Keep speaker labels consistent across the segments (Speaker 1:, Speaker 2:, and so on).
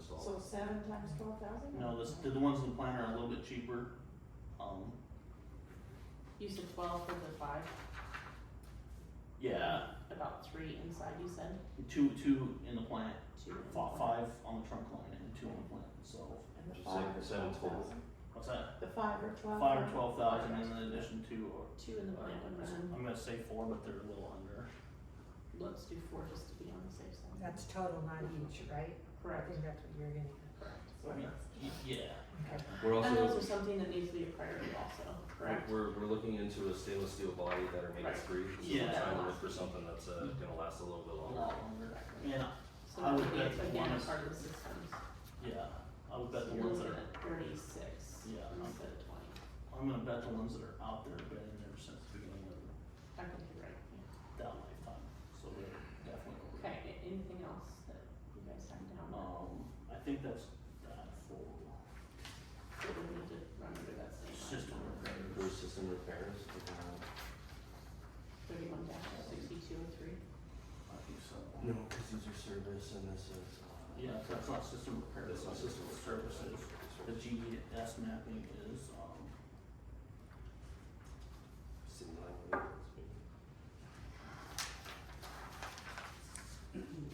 Speaker 1: So seven times twelve thousand?
Speaker 2: No, this, the ones in the plan are a little bit cheaper. Um,
Speaker 3: You said twelve for the five,
Speaker 2: yeah,
Speaker 3: about three inside, you said
Speaker 2: two, two in the plant,
Speaker 3: two.
Speaker 2: fi- five on the trunk line and two on the plant itself.
Speaker 1: And the
Speaker 4: Just
Speaker 1: five
Speaker 4: like
Speaker 1: or
Speaker 4: seven
Speaker 1: twelve
Speaker 4: total.
Speaker 1: thousand?
Speaker 2: What's that?
Speaker 1: The five or twelve?
Speaker 2: Five or twelve thousand and then addition two or,
Speaker 3: Two in the
Speaker 2: or-
Speaker 3: plant and then,
Speaker 2: I'm gonna say four, but they're a little under.
Speaker 3: let's do four just to be on the safe side.
Speaker 5: That's total, not each, right? I
Speaker 3: Correct,
Speaker 5: think that's what you're getting at.
Speaker 3: correct.
Speaker 2: I mean, y- yeah.
Speaker 5: Okay.
Speaker 4: We're
Speaker 3: And
Speaker 4: also,
Speaker 3: those are something that needs to be a priority also, correct?
Speaker 4: we're, we're looking into a stainless steel body that are made
Speaker 3: Right.
Speaker 4: of three, so
Speaker 2: Yeah.
Speaker 4: we're trying to look for something that's, uh, gonna last a little bit
Speaker 2: A
Speaker 4: longer.
Speaker 2: lot longer. And, I-
Speaker 3: So that
Speaker 2: I
Speaker 3: would
Speaker 2: would
Speaker 3: be
Speaker 2: bet
Speaker 3: again a
Speaker 2: ones-
Speaker 3: part of the systems.
Speaker 2: yeah, I would bet
Speaker 3: So
Speaker 2: the
Speaker 3: you're
Speaker 2: ones
Speaker 3: looking
Speaker 2: that are,
Speaker 3: at thirty-six
Speaker 2: Yeah, I'm-
Speaker 3: instead of twenty.
Speaker 2: I'm gonna bet the ones that are out there have been in there since the beginning of
Speaker 3: I think you're right, yeah.
Speaker 2: that lifetime, so they're definitely over.
Speaker 3: Okay, a- anything else that you guys have down
Speaker 2: Um, I think that's that for,
Speaker 3: that we need to run under that same
Speaker 2: it's
Speaker 3: line?
Speaker 2: just a repair.
Speaker 4: For system repairs, we can have-
Speaker 3: Thirty-one dash sixty-two oh three.
Speaker 2: I think so.
Speaker 4: no, cause these are service and this is, uh.
Speaker 2: Yeah, so that's not system repair,
Speaker 4: This
Speaker 2: that's
Speaker 4: is
Speaker 2: not
Speaker 4: system
Speaker 2: system services. The GDS mapping is, um,
Speaker 4: City line maintenance, maybe.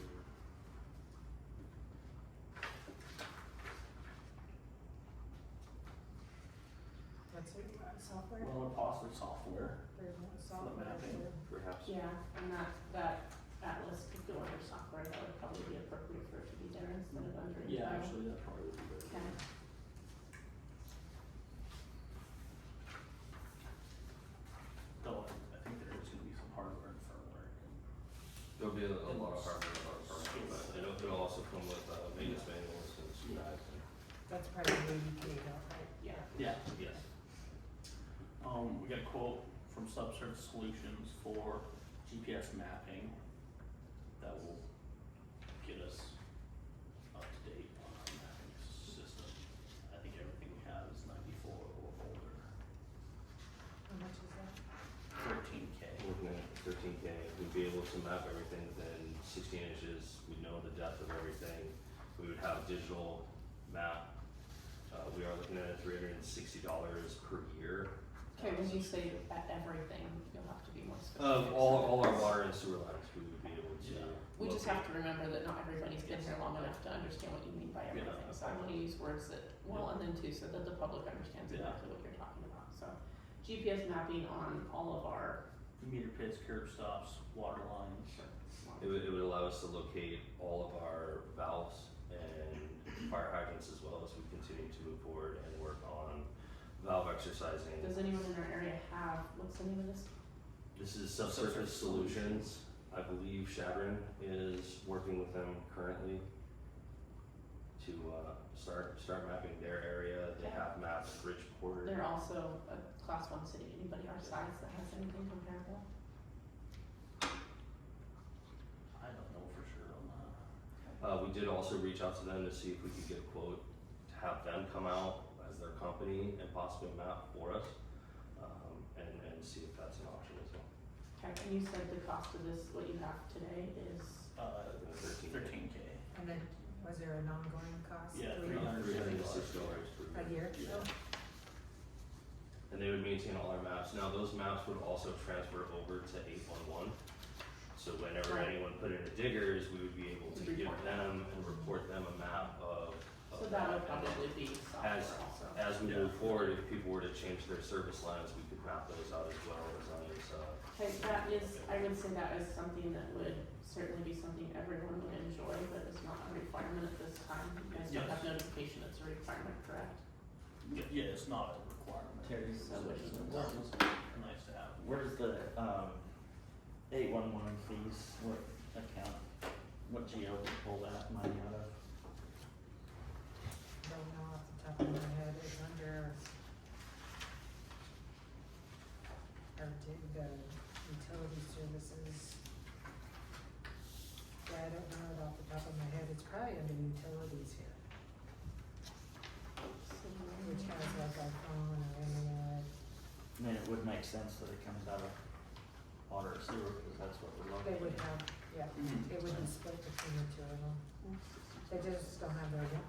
Speaker 5: What's it, uh, software?
Speaker 2: well, possibly software.
Speaker 5: Or what software
Speaker 2: mapping.
Speaker 5: for-
Speaker 4: Perhaps,
Speaker 3: Yeah, and that, that Atlas could go under software, that would probably be appropriate for it to be there instead of under.
Speaker 2: Yeah,
Speaker 3: environmental.
Speaker 2: actually, that probably would be better.
Speaker 3: Okay.
Speaker 2: Though I, I think there is gonna be some hardware and firmware.
Speaker 4: there'll be a, a lot of hardware on our part,
Speaker 2: Skills.
Speaker 4: but it'll, it'll also come with, uh, maintenance manuals and
Speaker 2: Yeah.
Speaker 4: guides and.
Speaker 5: That's probably eighty K, right?
Speaker 3: Yeah,
Speaker 2: Yeah,
Speaker 4: Yes.
Speaker 2: um, we got a quote from Subsurface Solutions for GPS mapping that will get us up to date on our mapping system. I think everything we have is ninety-four or older,
Speaker 5: How much is that?
Speaker 2: thirteen K.
Speaker 4: Looking at thirteen K, we'd be able to map everything within sixteen inches, we'd know the depth of everything, we would have digital map. Uh, we are looking at three hundred and sixty dollars per year.
Speaker 3: okay, when you say
Speaker 4: subscription.
Speaker 3: at everything, you'll have to be more specific.
Speaker 4: Of all, all our water and sewer lines, we would be able to.
Speaker 2: Yeah.
Speaker 3: We just
Speaker 4: locate.
Speaker 3: have to remember that not everybody's been here long enough to understand what you mean by
Speaker 2: Yeah.
Speaker 3: everything, so I'm gonna use words that, well, and then two, so that the public understands
Speaker 2: Yeah.
Speaker 3: exactly what you're talking about, so. GPS mapping on all of our.
Speaker 2: Meter pits, curb stops, water lines.
Speaker 4: It would, it would allow us to locate all of our valves and fire hydrants as well as we continue to move forward and work on valve exercising.
Speaker 3: Does anyone in our area have, what's the name of this?
Speaker 4: This is Subsurface Solutions. I believe Shadron is working with them currently to uh, start start mapping their area. They have mapped Bridgeport.
Speaker 3: They're also a class one city, anybody our size that has anything comparable?
Speaker 2: I don't know for sure on that.
Speaker 4: Uh, we did also reach out to them to see if we could get a quote to have them come out as their company and possibly map for us um, and, and see if that's an option as well.
Speaker 3: Okay, and you said the cost of this, what you have today is,
Speaker 2: Uh,
Speaker 4: Thirteen.
Speaker 2: thirteen K.
Speaker 5: And then,
Speaker 4: Uh,
Speaker 5: was there an ongoing cost?
Speaker 2: Yeah,
Speaker 5: to it?
Speaker 2: Three hundred
Speaker 4: Three hundred and
Speaker 2: sixty
Speaker 4: sixty
Speaker 2: dollars.
Speaker 4: dollars per
Speaker 5: A
Speaker 4: year.
Speaker 5: year?
Speaker 2: Yeah.
Speaker 4: and they would maintain all our maps. Now, those maps would also transfer over to eight one one. So whenever
Speaker 3: Right.
Speaker 4: anyone put in a diggers, we would be able
Speaker 3: To
Speaker 4: to give
Speaker 3: report.
Speaker 4: them and report them a map of. of
Speaker 3: so that would
Speaker 4: And
Speaker 3: probably be software
Speaker 4: as-
Speaker 3: also.
Speaker 4: As we
Speaker 2: Yeah.
Speaker 4: move forward, if people were to change their service lines, we could map those out as well as on these, uh,
Speaker 3: Okay, that is, I would say that is something that would certainly be something everyone would enjoy, but it's not a requirement at this time. You guys don't have notification, it's a requirement, correct?
Speaker 2: Yeah, yeah, it's not a requirement.
Speaker 6: Terry's
Speaker 3: So
Speaker 2: Which is
Speaker 3: it's-
Speaker 2: nice to have.
Speaker 6: Where's the um eight one one fees? What account? What GL did pull that money out of?
Speaker 5: Don't know off the top of my head, it's under. Or did the utility services. Yeah, I don't know it off the top of my head, it's probably under utilities here, which has like our phone or internet.
Speaker 6: I mean, it would make sense that it comes out of water and sewer because that's what we're
Speaker 5: They
Speaker 6: looking
Speaker 5: would
Speaker 6: at.
Speaker 5: have, yeah,
Speaker 2: Mhm.
Speaker 5: it would be split between the two of them, they just don't have their